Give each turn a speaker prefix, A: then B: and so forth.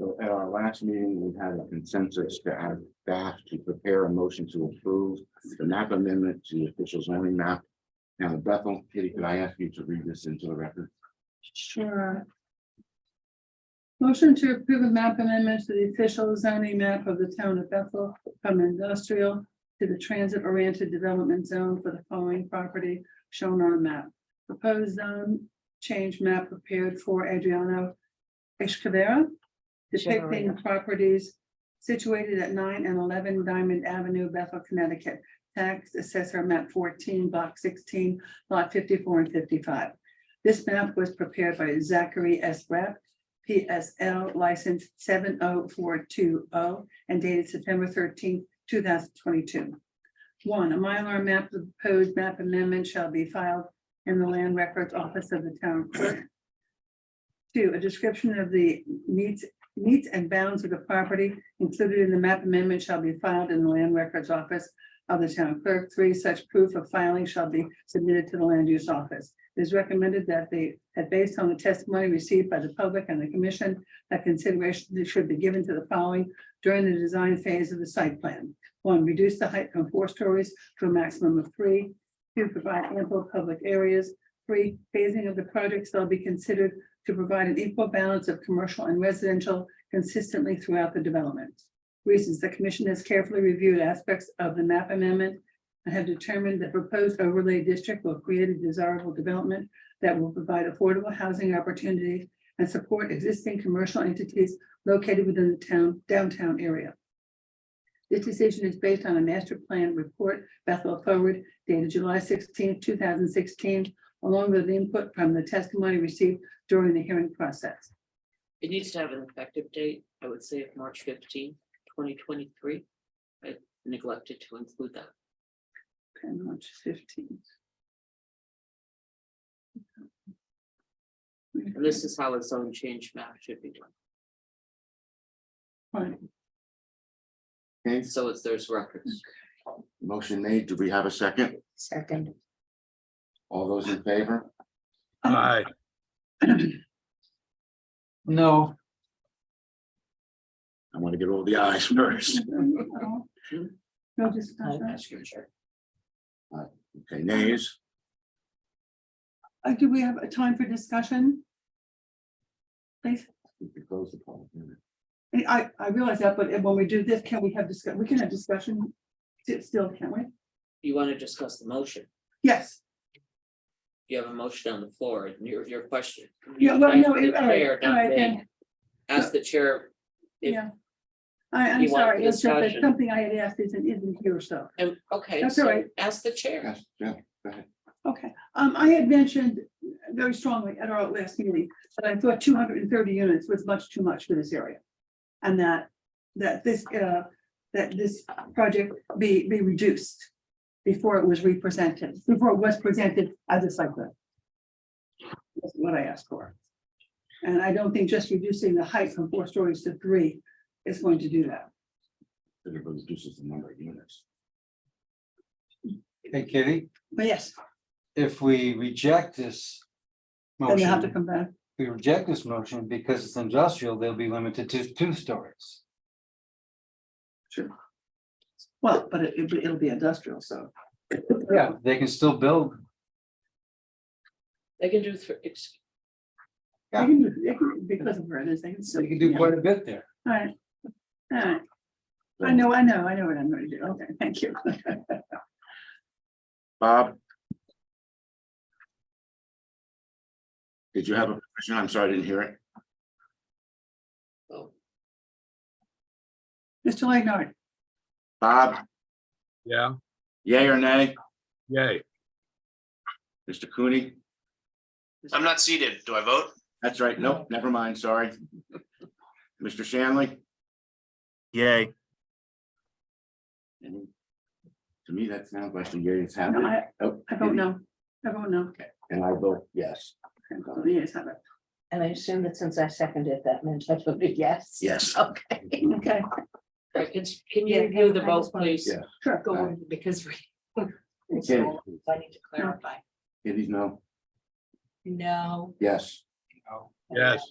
A: So at our last meeting, we had a consensus to add staff to prepare a motion to approve the map amendment to the official zoning map. Now, Bethel, Kitty, could I ask you to read this into the record?
B: Sure. Motion to approve a map amendment to the official zoning map of the town of Bethel from industrial to the transit oriented development zone for the following property shown on the map. Proposed zone change map prepared for Adriano Escavera depicting
C: Generator.
B: properties situated at nine and eleven Diamond Avenue, Bethel, Connecticut. Tax assessor map fourteen, block sixteen, lot fifty-four and fifty-five. This map was prepared by Zachary S. Rep, PSL license seven oh four two oh and dated September thirteenth, two thousand twenty-two. One, a Mylar map, of the proposed map amendment shall be filed in the land records office of the town clerk. Two, a description of the needs, needs and bounds of the property included in the map amendment shall be filed in the land records office of the town clerk. Three, such proof of filing shall be submitted to the land use office. It is recommended that they, that based on the testimony received by the public and the commission, that consideration should be given to the following during the design phase of the site plan. One, reduce the height from four stories to a maximum of three. Two, provide ample public areas. Three, phasing of the project shall be considered to provide an equal balance of commercial and residential consistently throughout the development. Reasons, the commission has carefully reviewed aspects of the map amendment and have determined that proposed overlay district will create a desirable development that will provide affordable housing opportunities and support existing commercial entities located within the town downtown area. This decision is based on a master plan report Bethel Forward dated July 16, thousand sixteen, along with input from the testimony received during the hearing process.
C: It needs to have an effective date, I would say of March 15, 2023. I neglected to include that.
B: Okay, March fifteenth.
C: And this is how a zone change map should be done.
A: Okay,
C: So it's, there's records.
A: motion made. Do we have a second?
D: Second,
A: All those in favor?
E: Aye.
F: No,
A: I want to get all the ayes first.
B: No discussion.
C: Ask your chair.
A: Okay, nays?
B: Uh, do we have a time for discussion? Please,
A: We could close the poll.
B: I, I- I realize that, but when we do this, can we have discuss, we can have discussion sti- still, can't we?
C: You want to discuss the motion.
B: Yes,
C: You have a motion on the floor and your, your question.
B: yeah, well, no,
C: Ask the
B: it- all right,
C: chair,
B: all
C: not
B: right,
C: me.
B: then,
C: Ask the chair, If-
B: yeah. I, I'm
C: You want
B: sorry, it's just that
C: discussion.
B: something I had asked isn't, isn't here, so.
C: and, okay,
B: That's all
C: so
B: right.
C: ask the chair.
A: Yes, yeah,
B: Okay, um, I had mentioned very strongly at our last meeting that I thought two hundred and thirty units was much too much for this area. And that, that this, uh, that this project be, be reduced before it was represented, before it was presented as a site plan. That's what I asked for. And I don't think just reducing the height from four stories to three is going to do that.
A: it reduces the number of units.
F: hey Kitty,
B: But yes,
F: if we reject this.
B: then they have to
F: Motion,
B: come back.
F: we reject this motion because it's industrial, they'll be limited to two stories.
B: Well, but it, it'll be- it'll be industrial, so.
F: Yeah, they can still build,
C: They can do, thr- ex-
B: They can do- they can- Because of where it is, they can
F: so
B: still.
F: you can do quite a bit there.
B: Alright, alright, I know, I know, I know what I'm gonna do, okay, thank you.
A: Bob? Did you have a question? I'm sorry, I didn't hear it.
C: oh,
B: Mr. Leonard,
A: Bob,
E: Yeah,
A: yay or nay?
E: yay.
A: Mr. Cooney?
G: I'm not seated. Do I vote?
A: That's right. Nope, never mind, sorry. Mr. Shanley?
G: Yay.
A: To me, that sounds like the year it's
B: no,
A: happening.
B: I,
A: Oh,
B: I don't know, I don't know,
A: And I vote yes.
B: I'm going, yes, I don't-
D: and I assume that since I seconded that meant I voted yes.
A: Yes.
B: Oh,
D: Okay.
B: okay,
C: all right, can, can you
D: Yeah,
C: review the
D: I
C: vote,
D: just wanted-
C: please?
A: Yeah.
B: sure,
C: Go
B: go,
C: on, because we,
D: It's
A: Okay.
D: all- I need to clarify.
A: It is no,
D: No.
A: yes.
F: you know.
E: Yes.